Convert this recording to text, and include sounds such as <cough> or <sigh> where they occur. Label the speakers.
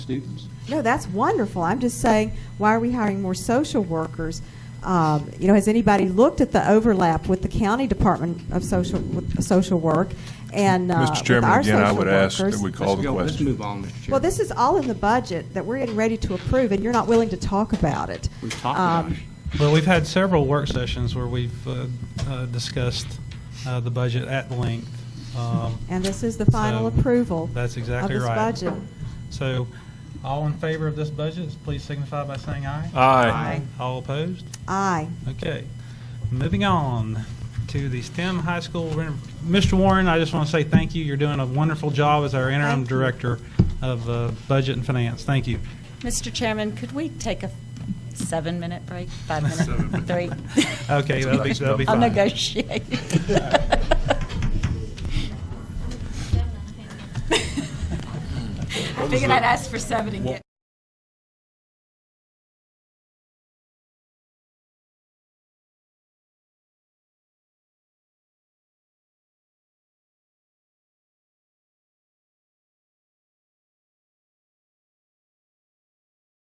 Speaker 1: students.
Speaker 2: No, that's wonderful. I'm just saying, why are we hiring more social workers? Um, you know, has anybody looked at the overlap with the county department of social with social work and uh,
Speaker 3: Mr. Chairman,
Speaker 2: with our
Speaker 3: again, I
Speaker 2: social
Speaker 3: would ask that
Speaker 2: workers?
Speaker 3: we call
Speaker 1: Let's
Speaker 3: the
Speaker 1: go- Let's
Speaker 3: question.
Speaker 1: move on, Mr. Chairman.
Speaker 2: Well, this is all in the budget that we're getting ready to approve, and you're not willing to talk about it.
Speaker 1: We've talked about
Speaker 2: Um,
Speaker 1: it.
Speaker 4: Well, we've had several work sessions where we've uh, uh, discussed uh, the budget at length. Um,
Speaker 2: And this is the final
Speaker 4: so
Speaker 2: approval
Speaker 4: That's exactly
Speaker 2: of this
Speaker 4: right.
Speaker 2: budget.
Speaker 4: So, all in favor of this budget, please signify by saying aye.
Speaker 3: Aye.
Speaker 4: All opposed?
Speaker 2: Aye.
Speaker 4: Okay. Moving on to the STEM High School. re- Mr. Warren, I just want to say thank you. You're doing a wonderful job as our interim
Speaker 2: Thank you.
Speaker 4: director of uh, budget and finance. Thank you.
Speaker 5: Mr. Chairman, could we take a seven-minute break,
Speaker 4: <laughs>
Speaker 5: five-minute, three? <laughs>
Speaker 2: <laughs>
Speaker 4: Okay, that'll be, that'll be
Speaker 5: I'll
Speaker 4: fine.
Speaker 5: <laughs> negotiate. I figured I'd ask for seven and get.